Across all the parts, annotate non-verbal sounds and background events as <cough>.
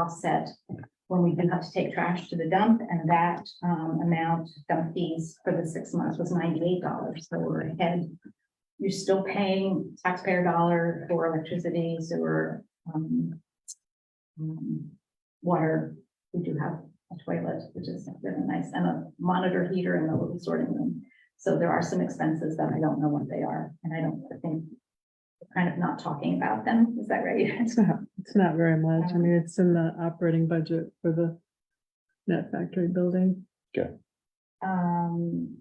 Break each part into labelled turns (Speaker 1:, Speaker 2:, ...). Speaker 1: offset when we do have to take trash to the dump, and that um amount dump fees for the six months was ninety-eight dollars, so we're ahead. You're still paying taxpayer dollar for electricity, sewer, um. um, Water, we do have a toilet, which is really nice, and a monitor heater in the little sorting room. So there are some expenses that I don't know what they are, and I don't think. we're Kind of not talking about them, is that right? <laughs>
Speaker 2: It's not, it's not very much. I mean, it's in the operating budget for the net factory building.
Speaker 1: Um,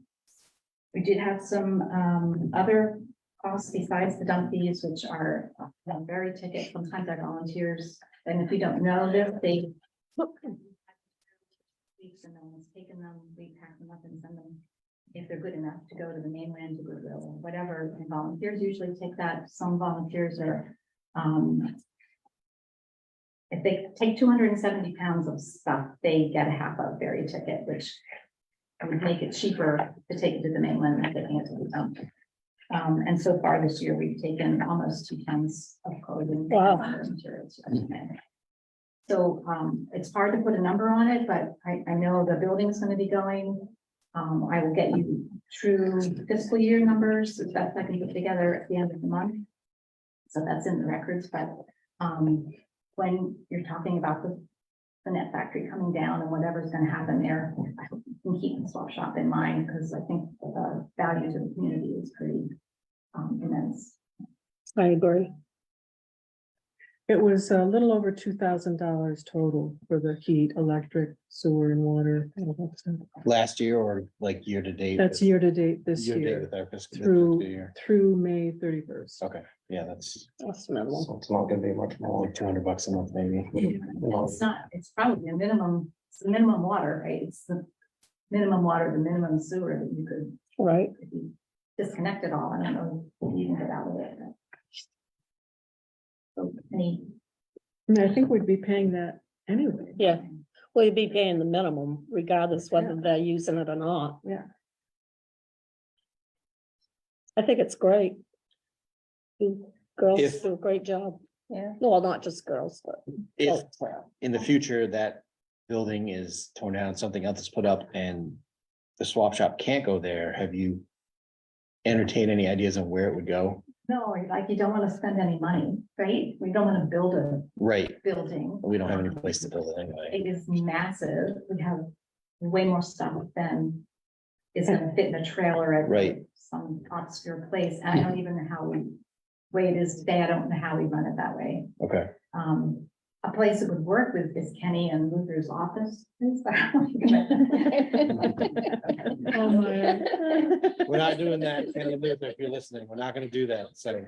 Speaker 1: we did have some, um, other costs besides the dump fees, which are uh, the very ticket, sometimes our volunteers, and if you don't know this, they weeks and then one's taken them, we pack them up and send them, if they're good enough, to go to the mainland, to Goodwill, or whatever, and volunteers usually take that, some volunteers are, um, if they take two hundred and seventy pounds of stuff, they get a half of ferry ticket, which would make it cheaper to take it to the mainland than taking it to the dump. Um, and so far this year, we've taken almost two tons of clothing. and
Speaker 2: Wow.
Speaker 1: other materials to the mainland. So, um, it's hard to put a number on it, but I, I know the building's gonna be going. Um, I will get you true fiscal year numbers, if that's, I can put together at the end of the month. So that's in the records, but, um, when you're talking about the, the net factory coming down and whatever's gonna happen there, I hope you can keep the swap shop in mind, because I think the value to the community is pretty um, immense.
Speaker 2: I agree. It was a little over two thousand dollars total for the heat, electric, sewer and water. all that stuff.
Speaker 3: last year or like year to date?
Speaker 2: That's
Speaker 3: with-
Speaker 2: year to date this
Speaker 3: year to date
Speaker 2: year
Speaker 3: With our fiscal
Speaker 2: through-
Speaker 3: fiscal year.
Speaker 2: through May thirty first.
Speaker 3: Okay, yeah, that's,
Speaker 2: That's
Speaker 3: so it's not gonna be much more, like two hundred bucks a month maybe. Well,
Speaker 1: It's not, it's probably a minimum, it's the minimum water, right? It's the minimum water, the minimum sewer that you could,
Speaker 2: right?
Speaker 1: if you disconnect it all, I don't know if you can get out of it. but- So, any,
Speaker 2: And I think we'd be paying that anyway.
Speaker 4: Yeah, well, you'd be paying the minimum regardless whether they're using it or not.
Speaker 2: Yeah.
Speaker 4: I think it's great. You girls
Speaker 3: If-
Speaker 4: do a great job.
Speaker 1: yeah,
Speaker 4: No, Well, not just girls, but.
Speaker 3: If
Speaker 4: both. Well,
Speaker 3: in the future that building is torn down, something else is put up and the swap shop can't go there, have you entertained any ideas on where it would go?
Speaker 1: no, like you don't want to spend any money, right? We don't want to build a
Speaker 3: Right,
Speaker 1: building.
Speaker 3: we don't have any place to build it anyway.
Speaker 1: It is massive. We have way more stuff than is gonna fit in a trailer at.
Speaker 3: Right.
Speaker 1: Some obscure place. And I don't even know how we, way it is today, I don't know how we run it that way.
Speaker 3: Okay,
Speaker 1: Um, a place that would work with is Kenny and Luther's office. <laughs> That
Speaker 2: Oh, my.
Speaker 3: we're not doing that, Kenny Linder, if you're listening, we're not gonna do that,
Speaker 1: <laughs>
Speaker 3: so
Speaker 1: would-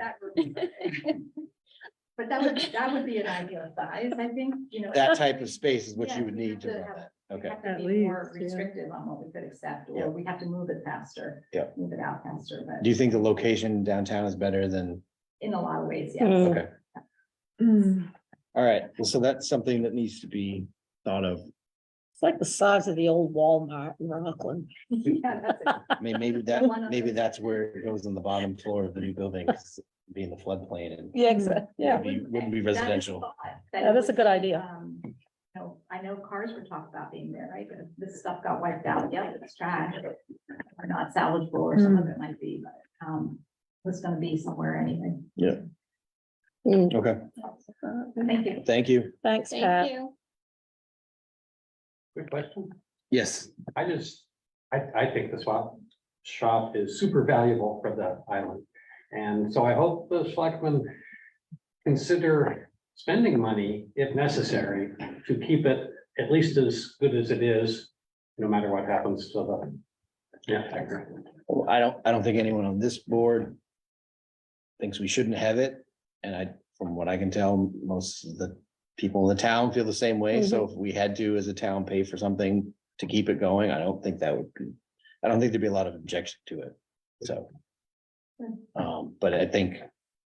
Speaker 1: But that would, that would be an ideal size, I think, you know.
Speaker 3: that type of space is what
Speaker 1: Yeah,
Speaker 3: you would
Speaker 1: we
Speaker 3: need to
Speaker 1: have to
Speaker 3: run
Speaker 1: have-
Speaker 3: that,
Speaker 1: We
Speaker 3: okay.
Speaker 1: have to
Speaker 2: At
Speaker 1: be more
Speaker 2: least, yeah.
Speaker 1: Restrictive on what we could accept,
Speaker 3: Yeah.
Speaker 1: or we have to move it faster.
Speaker 3: Yeah.
Speaker 1: Move it out faster, but
Speaker 3: Do you think the location downtown is better than,
Speaker 1: in a lot of ways, yes.
Speaker 4: Mm.
Speaker 3: okay,
Speaker 2: <laughs> Hmm.
Speaker 3: all right, well, so that's something that needs to be thought of.
Speaker 4: It's like the size of the old Walmart in Rockland.
Speaker 1: <laughs> Yeah, that's it.
Speaker 3: I mean, maybe that,
Speaker 1: <laughs> One of
Speaker 3: maybe
Speaker 1: the-
Speaker 3: that's where it goes on the bottom floor of the new building, 'cause it'd be in the floodplain and.
Speaker 4: Yeah,
Speaker 2: exact-
Speaker 3: yeah,
Speaker 1: That
Speaker 3: be- wouldn't be
Speaker 1: that is
Speaker 3: residential.
Speaker 1: thought,
Speaker 4: That
Speaker 1: it
Speaker 4: is a
Speaker 1: would
Speaker 4: good
Speaker 1: be,
Speaker 4: idea.
Speaker 1: um, you know, I know cars were talked about being there, right? But This stuff got wiped out, yeah, it's trash. Or not salvageable, or some of it might be, but, um, it's gonna be somewhere anyway.
Speaker 4: Mm,
Speaker 3: Okay,
Speaker 1: Thank you.
Speaker 3: thank you.
Speaker 4: Thanks, Pat.
Speaker 5: Quick question.
Speaker 3: Yes,
Speaker 5: I just, I, I think the swap shop is super valuable for the island. And so I hope the selectmen consider spending money if necessary to keep it at least as good as it is, no matter what happens to the. Yeah, I agree.
Speaker 3: Well, I don't, I don't think anyone on this board thinks we shouldn't have it, and I, from what I can tell, most of the people in the town feel the same way, so if we had to, as a town, pay for something to keep it going, I don't think that would be, I don't think there'd be a lot of objection to it, so. Um, but I think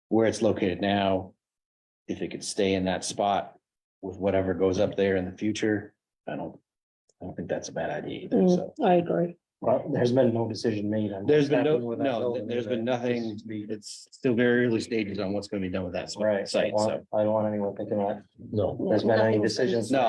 Speaker 3: where it's located now, if it could stay in that spot with whatever goes up there in the future, I don't, I don't think that's a bad idea either,
Speaker 4: Mm,
Speaker 3: so.
Speaker 4: I agree.
Speaker 5: Well, there's been no decision made on.
Speaker 3: There's been no,
Speaker 5: what's happening with that
Speaker 3: no,
Speaker 5: building,
Speaker 3: there's
Speaker 5: but
Speaker 3: been nothing,
Speaker 5: it's to be-
Speaker 3: it's still very early stages on what's gonna be done with that
Speaker 5: Right, I
Speaker 3: site,
Speaker 5: don't
Speaker 3: so.
Speaker 5: want- I don't want anyone thinking that
Speaker 3: No.
Speaker 5: there's been any
Speaker 4: Nothing's-
Speaker 5: decisions.
Speaker 3: No,